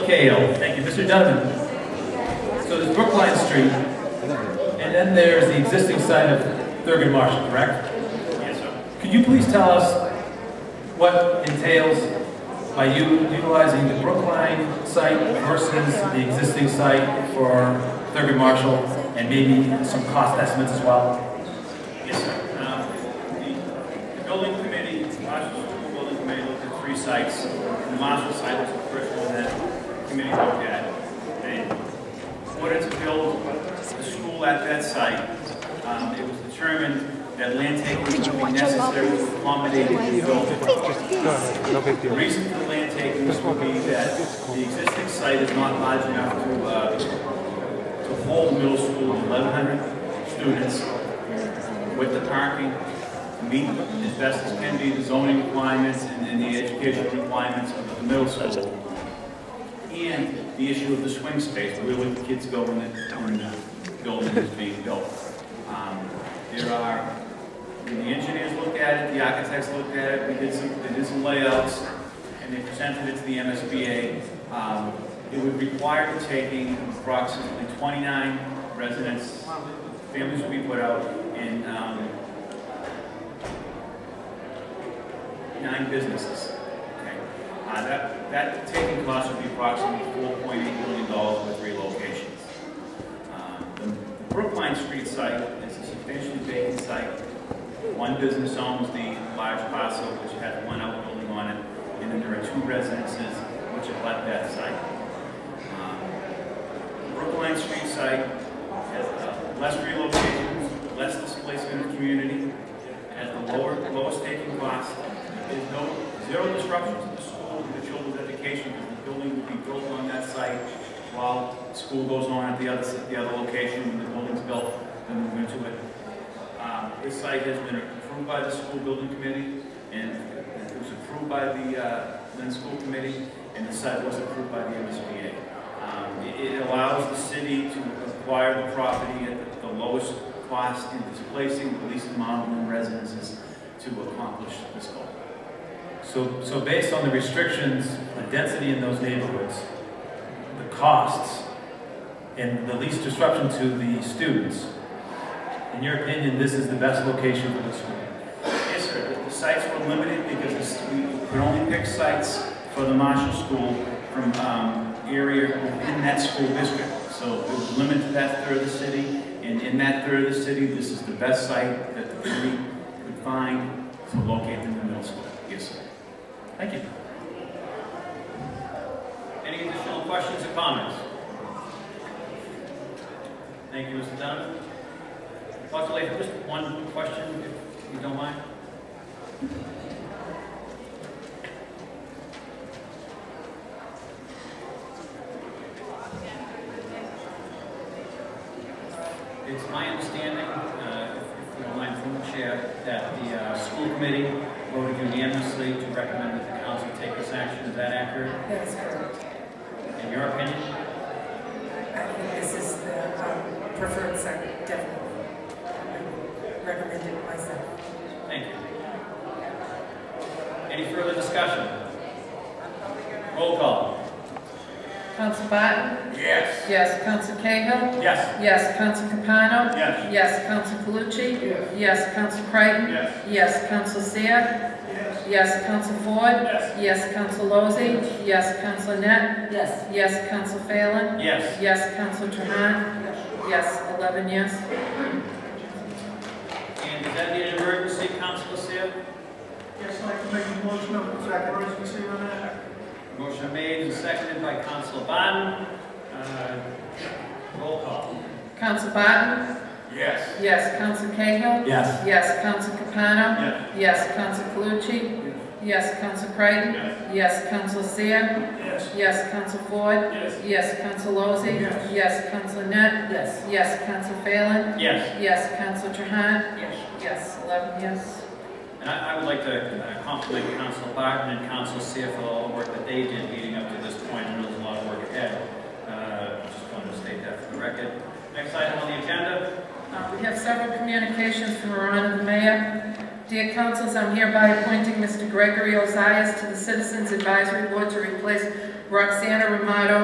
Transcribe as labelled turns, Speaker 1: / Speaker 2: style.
Speaker 1: Kale, thank you. Mr. Donovan? So there's Brookline Street, and then there's the existing site of Thurgood Marshall, correct? Yes, sir. Could you please tell us what entails by you utilizing the Brookline site versus the existing site for Thurgood Marshall, and maybe some cost estimates as well?
Speaker 2: Yes, sir. Um, the- The building committee, Marshall School Building Committee looked at three sites. The Marshall site was the first one that the committee looked at. And in order to build the school at that site, um, it was determined that land taking would be necessary to accommodate the building.
Speaker 3: No big
Speaker 2: The
Speaker 3: deal.
Speaker 2: reason for land taking would be that the existing site is not large enough to, uh, to hold middle school eleven hundred students with the parking, to meet as best as can be the zoning requirements and and the educational requirements of the middle school. And the issue of the swing space, where would the kids go when the, when the building is being built? Um, There are, when the engineers looked at it, the architects looked at it, we did some, they did some layouts, and they presented it to the MSBA. Um, It would require the taking approximately 29 residents, families would be put out, and um, nine businesses. Okay, Uh, That, that taking cost would be approximately $4.8 million with three locations. Um, The Brookline Street site is a substantially vacant site. One business owns the large parcel, which has one outbuilding on it, and then there are two residences which abut that site. Um, Brookline Street site has uh, less relocations, less displacement of community, has the lower, lowest taking cost. There's no, zero disruption to the school and the children's education, because the building will be built on that site while school goes on at the other, the other location, when the building's built, then move into it. Um, This site has been approved by the school building committee, and it was approved by the uh, Lynn School Committee, and the site was approved by the MSBA. Um, it- It allows the city to acquire the property at the lowest cost in displacing the least amount of residences to accomplish this goal.
Speaker 1: So, so based on the restrictions, the density in those neighborhoods, the costs, and the least disruption to the students, in your opinion, this is the best location for the school?
Speaker 2: Yes, sir, the- the sites were limited because this- we could only pick sites for the Marshall School from um, area within that school district. So it was limited to that third of the city, and in that third of the city, this is the best site that the committee could find to locate in the middle school. Yes, sir. Thank you. Any additional questions or comments? Thank you, Mr. Donovan. Dr. Latham, just one question, if you don't mind. It's my understanding, uh, if you don't mind from the chair, that the uh, school committee voted unanimously to recommend that the council take this action. Is that accurate?
Speaker 4: That is correct.
Speaker 2: In your opinion?
Speaker 4: I think this is the um, preferred site, definitely. I Recommend it myself.
Speaker 2: Thank you. Any further discussion? Roll call.
Speaker 5: Council Barton?
Speaker 2: Yes.
Speaker 5: Yes. Council Cahill?
Speaker 2: Yes.
Speaker 5: Yes. Council Capano?
Speaker 2: Yes.
Speaker 5: Yes. Council Calucci? Yes. Yes. Council Creighton?
Speaker 2: Yes.
Speaker 5: Yes. Council Seer? Yes. Yes. Council Ford?
Speaker 2: Yes.
Speaker 5: Yes. Council Lozey? Yes. Council Net?
Speaker 4: Yes.
Speaker 5: Yes. Council Phelan?
Speaker 2: Yes.
Speaker 5: Yes. Council Trahan? Yes. Eleven yes.
Speaker 2: And is that an emergency, Councilor Seer?
Speaker 6: Yes, I'd like to make a motion of exact emergency on that.
Speaker 2: Motion made and seconded by Councilor Biden. Uh, Roll call.
Speaker 5: Council Barton?
Speaker 2: Yes.
Speaker 5: Yes. Council Cahill?
Speaker 1: Yes.
Speaker 5: Yes. Council Capano?
Speaker 2: Yes.
Speaker 5: Yes. Council Calucci? Yes. Council Creighton?
Speaker 2: Yes.
Speaker 5: Yes. Council Seer?
Speaker 6: Yes.
Speaker 5: Yes. Council Ford?
Speaker 2: Yes.
Speaker 5: Yes, Counsel Lozey.
Speaker 6: Yes.
Speaker 5: Yes, Counsel Net.
Speaker 4: Yes.
Speaker 5: Yes, Counsel Phelan.
Speaker 2: Yes.
Speaker 5: Yes, Counsel Trahan.
Speaker 4: Yes.
Speaker 5: Yes, eleven yes.
Speaker 2: And I, I would like to uh, compliment Council Barton and Council Seer for all the work that they did leading up to this point. I know there's a lot of work ahead. Uh, Just wanted to state that for the record. Next item on the agenda.
Speaker 5: Uh, We have several communications from our honorable mayor. Dear councils, I'm hereby appointing Mr. Gregory Ozias to the Citizens Advisory Board to replace Roxana Romano